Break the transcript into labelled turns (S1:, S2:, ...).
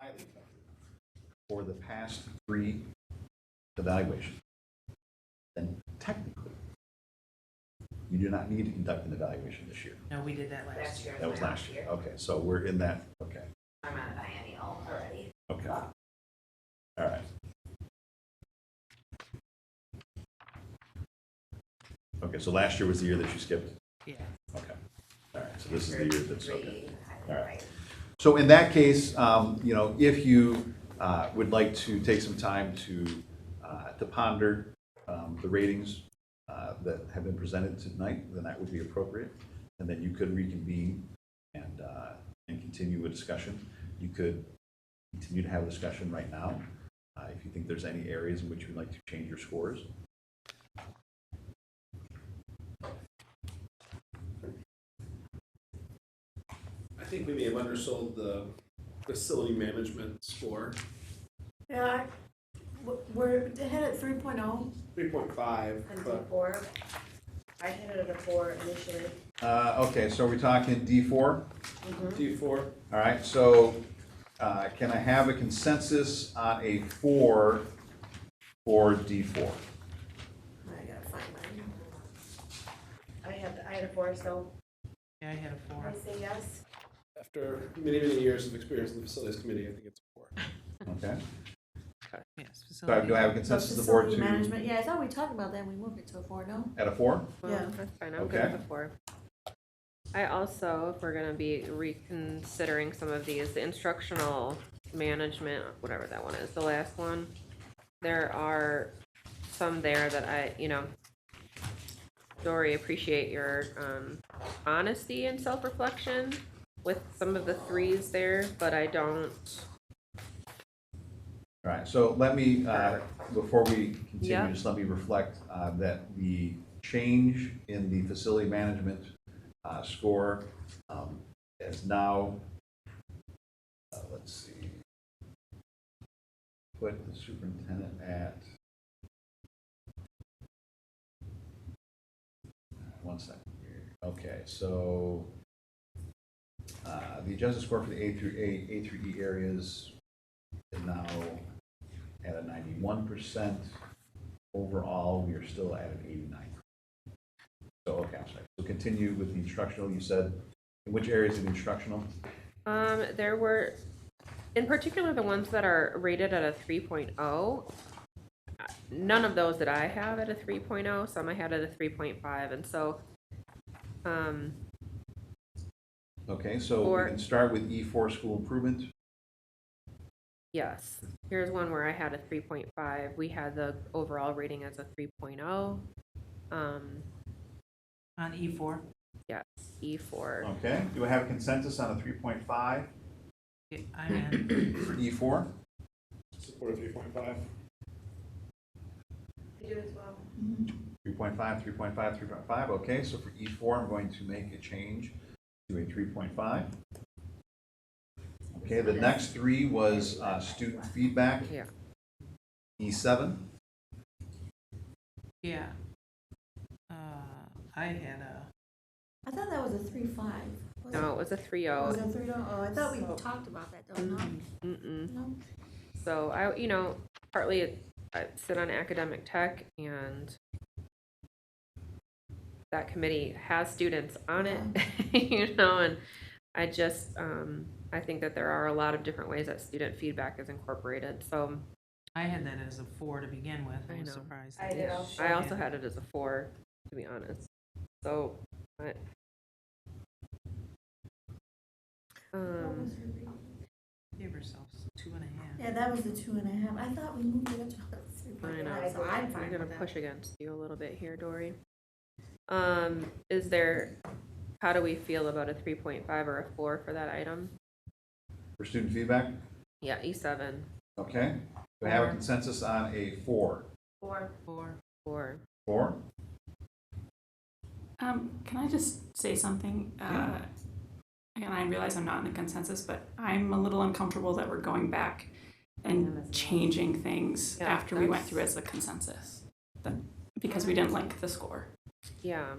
S1: highly covered for the past three evaluations, then technically, you do not need to conduct an evaluation this year.
S2: No, we did that last
S3: Last
S2: year.
S3: year.
S1: That was last year. Okay, so we're in that, okay,
S3: I'm on a biennial already.
S1: okay. All right. Okay, so last year was the year that you skipped?
S2: Yeah.
S1: Okay. All right, so this is the year that's, okay.
S3: Three, I think,
S1: All right.
S3: right.
S1: So in that case, um, you know, if you uh, would like to take some time to, uh, to ponder um, the ratings uh, that have been presented tonight, then that would be appropriate. And then you could reconvene and, uh, and continue a discussion. You could continue to have a discussion right now, uh, if you think there's any areas in which you'd like to change your scores.
S4: I think we may have undersold the facility management score,
S5: Yeah, I- w- we're ahead at three point oh.
S4: three point five,
S3: And
S4: but
S3: four, I hit it at a four initially.
S1: Uh, Okay, so are we talking D four?
S4: D four,
S1: All right, so uh, can I have a consensus on a four for D4?
S3: I gotta find mine. I had, I had a four, so
S2: Yeah, I had a
S3: I
S2: four.
S3: say yes.
S4: after many, many years of experience in the facilities committee, I think it's a four.
S1: Okay,
S2: Yes.
S1: so do I have a consensus of the board
S5: Facility
S1: to,
S5: management, yeah, I thought we talked about that, we moved it to a four, no?
S1: at a four?
S6: Well,
S5: Yeah.
S6: That's fine, I'm good
S1: Okay.
S6: with the four. I also, if we're gonna be reconsidering some of these, the instructional management, whatever that one is, the last one, there are some there that I, you know, Dory, appreciate your, um, honesty and self-reflection with some of the threes there, but I don't,
S1: All right, so let me, uh, before we continue,
S6: Yeah.
S1: just let me reflect uh, that the change in the facility management uh, score um, is now, uh, let's see, put the superintendent at, uh, one second here, okay, so uh, the adjusted score for the A through A, A through E areas is now at a ninety-one percent. Overall, we are still at an eighty-nine. So, okay, I'm sorry. So continue with the instructional, you said, in which areas of instructional?
S6: Um, there were, in particular, the ones that are rated at a 3.0. None of those that I have at a 3.0, some I had at a 3.5, and so, um,
S1: Okay, so
S6: Or-
S1: we can start with E four, school improvement.
S6: yes. Here's one where I had a 3.5. We had the overall rating as a 3.0. Um,
S2: On E four?
S6: yes, E E4.
S1: Okay, do we have consensus on a three point five
S2: I'm in.
S1: for E four?
S4: Support of three point five.
S3: You do as well.
S1: Three point five, three point five, three point five, okay, so for E four, I'm going to make a change to a three point five. Okay, the next three was uh, student feedback.
S6: Yeah.
S1: E seven.
S2: Yeah. Uh, I had a,
S5: I thought that was a three five.
S6: No, it was a
S5: Was
S6: 3.0.
S5: it three, oh, I thought we talked about that, though, no?
S6: Mm-mm.
S5: No?
S6: So I, you know, partly it- I sit on academic tech and that committee has students on it, you know, and I just, um, I think that there are a lot of different ways that student feedback is incorporated. So
S2: I had that as a four to begin with.
S6: I
S2: I was
S6: know.
S2: surprised.
S3: I
S2: that
S3: did
S2: she
S3: also.
S6: I also
S2: had-
S6: had it as a four, to be honest. So, but. Um,
S2: Give yourselves two and a half.
S5: Yeah, that was the two and a half, I thought we moved it up to three point
S6: I know.
S5: five, so I'm fine
S6: I'm gonna
S5: with that.
S6: push against you a little bit here, Dory. Um, is there, how do we feel about a three point five or a four for that item?
S1: For student feedback,
S6: Yeah, E seven,
S1: okay? Do we have a
S6: Four.
S1: consensus on a four?
S3: Four.
S2: Four.
S6: four.
S1: Four?
S7: Um, can I just say something? Uh, and I realize I'm not in a consensus, but I'm a little uncomfortable that we're going back and changing things
S6: Yeah,
S7: after we went
S6: that's-
S7: through as a consensus. That- Because we didn't like the score.
S6: Yeah,